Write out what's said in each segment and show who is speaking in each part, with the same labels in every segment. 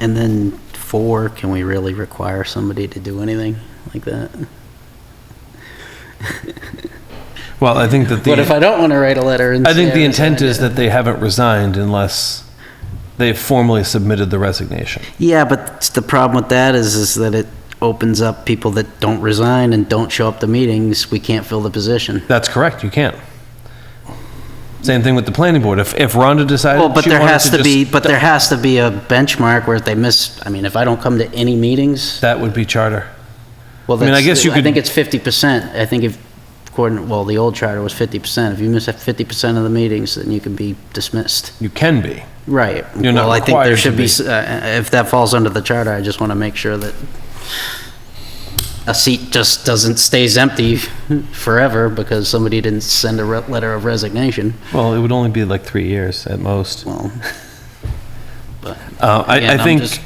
Speaker 1: And then four, can we really require somebody to do anything like that?
Speaker 2: Well, I think that
Speaker 1: What if I
Speaker 2: the,
Speaker 1: don't want to write a letter and
Speaker 2: I think
Speaker 1: say
Speaker 2: the
Speaker 1: I
Speaker 2: intent
Speaker 1: resigned?
Speaker 2: is that they haven't resigned unless they've formally submitted the resignation.
Speaker 1: Yeah, but the problem with that is, is that it opens up people that don't resign and don't show up to meetings, we can't fill the position.
Speaker 2: That's correct, you can't. Same thing with the planning board. If, if Rhonda decided
Speaker 1: Well, but
Speaker 2: she
Speaker 1: there
Speaker 2: wanted
Speaker 1: has
Speaker 2: to
Speaker 1: to be,
Speaker 2: just,
Speaker 1: but there has to be a benchmark where if they miss, I mean, if I don't come to any meetings,
Speaker 2: that would be charter.
Speaker 1: well,
Speaker 2: I mean, I
Speaker 1: that's-
Speaker 2: guess you
Speaker 1: I
Speaker 2: could-
Speaker 1: think it's fifty percent. I think if, according, well, the old charter was fifty percent. If you miss fifty percent of the meetings, then you can be dismissed.
Speaker 2: You can be.
Speaker 1: Right.
Speaker 2: You're not
Speaker 1: Well, I think there
Speaker 2: required
Speaker 1: should
Speaker 2: to
Speaker 1: be,
Speaker 2: be.
Speaker 1: s- uh, if that falls under the charter, I just want to make sure that a seat just doesn't, stays empty forever because somebody didn't send a re- letter of resignation.
Speaker 2: Well, it would only be like three years at most.
Speaker 1: Well,
Speaker 2: Uh, I,
Speaker 1: again,
Speaker 2: I
Speaker 1: I'm
Speaker 2: think,
Speaker 1: just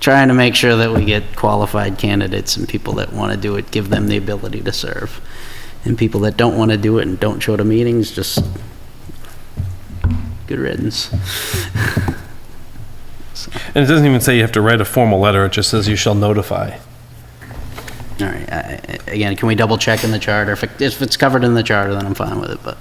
Speaker 1: Trying to make sure that we get qualified candidates and people that want to do it, give them the ability to serve. And people that don't want to do it and don't show to meetings, just good riddance.
Speaker 2: and it doesn't even say you have to write a formal letter, it just says you shall notify.
Speaker 1: All right, I- I- again, can we double check in the charter? If it- If it's covered in the charter, then I'm fine with it, but.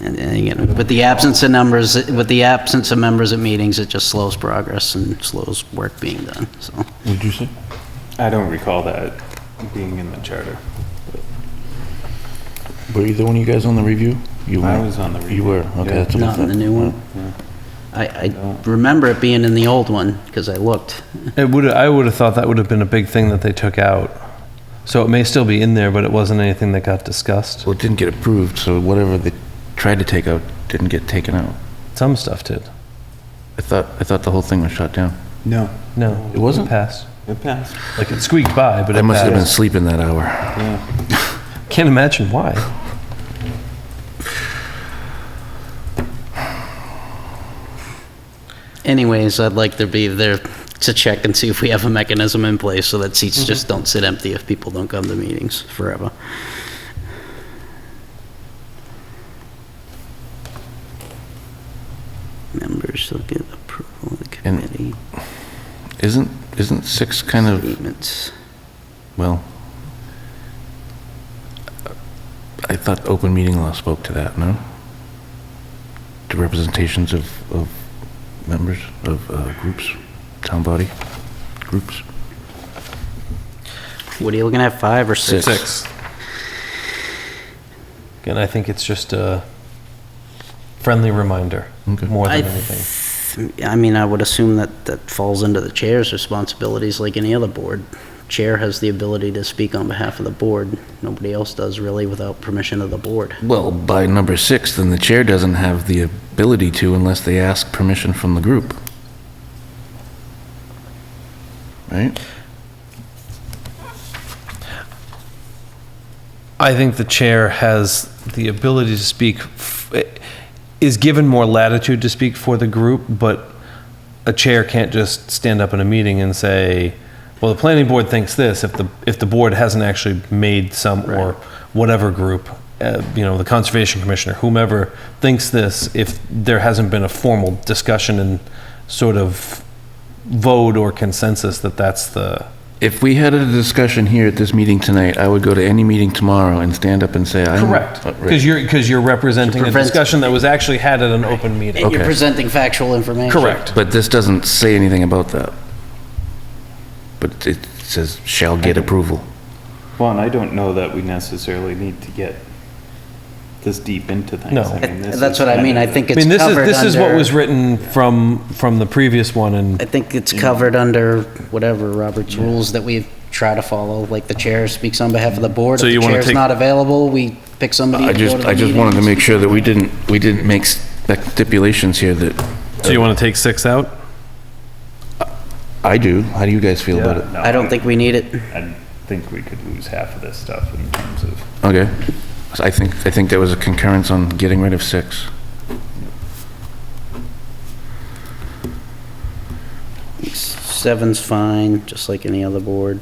Speaker 1: And and again, with the absence of numbers, with the absence of members at meetings, it just slows progress and slows work being done, so.
Speaker 3: Would you say?
Speaker 4: I don't recall that being in the charter.
Speaker 3: Were either one of you guys on the review? You
Speaker 4: I
Speaker 3: were.
Speaker 4: was on the review.
Speaker 3: You were, okay,
Speaker 4: Yeah.
Speaker 3: that's what I
Speaker 1: Not in the
Speaker 3: thought.
Speaker 1: new one. I, I remember it being in the old one, because I looked.
Speaker 2: It would, I would have thought that would have been a big thing that they took out. So it may still be in there, but it wasn't anything that got discussed.
Speaker 3: Well, it didn't get approved, so whatever they tried to take out didn't get taken out.
Speaker 2: Some stuff did.
Speaker 3: I thought, I thought the whole thing was shut down.
Speaker 4: No.
Speaker 2: No.
Speaker 3: It wasn't?
Speaker 2: Passed.
Speaker 4: It passed.
Speaker 2: Like it squeaked by, but
Speaker 3: I
Speaker 2: it
Speaker 3: must have been
Speaker 2: passed.
Speaker 3: sleeping that hour.
Speaker 4: Yeah.
Speaker 2: Can't imagine why.
Speaker 1: Anyways, I'd like to be there to check and see if we have a mechanism in place so that seats just
Speaker 3: Mm-hmm.
Speaker 1: don't sit empty if people don't come to meetings forever. Members shall get approval of the
Speaker 3: And-
Speaker 1: committee
Speaker 3: Isn't, isn't six kind of,
Speaker 1: statements.
Speaker 3: well, I thought open meeting law spoke to that, no? To representations of, of members, of uh, groups, town body, groups?
Speaker 1: What are you looking at, five or six?
Speaker 3: Six.
Speaker 2: Again, I think it's just a friendly reminder
Speaker 3: Okay.
Speaker 2: more
Speaker 1: I
Speaker 2: than anything.
Speaker 1: th- I mean, I would assume that that falls into the chair's responsibilities like any other board. Chair has the ability to speak on behalf of the board. Nobody else does really without permission of the board.
Speaker 3: Well, by number six, then the chair doesn't have the ability to unless they ask permission from the group. Right?
Speaker 2: I think the chair has the ability to speak, f- is given more latitude to speak for the group, but a chair can't just stand up in a meeting and say, well, the planning board thinks this, if the, if the board hasn't actually made some, or whatever group, uh, you know, the conservation commissioner, whomever thinks this, if there hasn't been a formal discussion and sort of vote or consensus that that's the,
Speaker 3: If we had a discussion here at this meeting tonight, I would go to any meeting tomorrow and stand up and say, I'm.
Speaker 2: Correct,
Speaker 3: Uh,
Speaker 2: because
Speaker 3: right.
Speaker 2: you're, because you're representing a
Speaker 1: prevent-
Speaker 2: discussion that was actually had at an open meeting.
Speaker 1: And you're
Speaker 3: Okay.
Speaker 1: presenting factual information.
Speaker 2: Correct.
Speaker 3: But this doesn't say anything about that. But it says shall get approval.
Speaker 4: Well, and I don't know that we necessarily need to get this deep into things.
Speaker 2: No.
Speaker 4: I mean, this
Speaker 1: That's
Speaker 4: is
Speaker 1: what I
Speaker 4: kind
Speaker 1: mean,
Speaker 4: of
Speaker 1: I
Speaker 4: the-
Speaker 1: think
Speaker 2: I
Speaker 1: it's
Speaker 2: mean, this is,
Speaker 1: covered
Speaker 2: this is what
Speaker 1: under-
Speaker 2: was written from, from the previous one,
Speaker 1: I
Speaker 2: and
Speaker 1: think it's covered under whatever Robert's rules that we try to follow, like the chair speaks on behalf of the board.
Speaker 2: So you
Speaker 1: If the
Speaker 2: wanna
Speaker 1: chair's
Speaker 2: take-
Speaker 1: not available, we pick somebody
Speaker 3: I
Speaker 1: to go
Speaker 3: just,
Speaker 1: to the
Speaker 3: I just wanted to
Speaker 1: meetings.
Speaker 3: make sure that we didn't, we didn't make spec- stipulations here that,
Speaker 2: so you want to take six out?
Speaker 3: I do. How do you guys feel about it?
Speaker 4: Yeah, no,
Speaker 1: I don't think we need it.
Speaker 4: I think we could lose half of this stuff in terms of.
Speaker 3: Okay. So I think, I think there was a concurrence on getting rid of six.
Speaker 1: Seven's fine, just like any other board.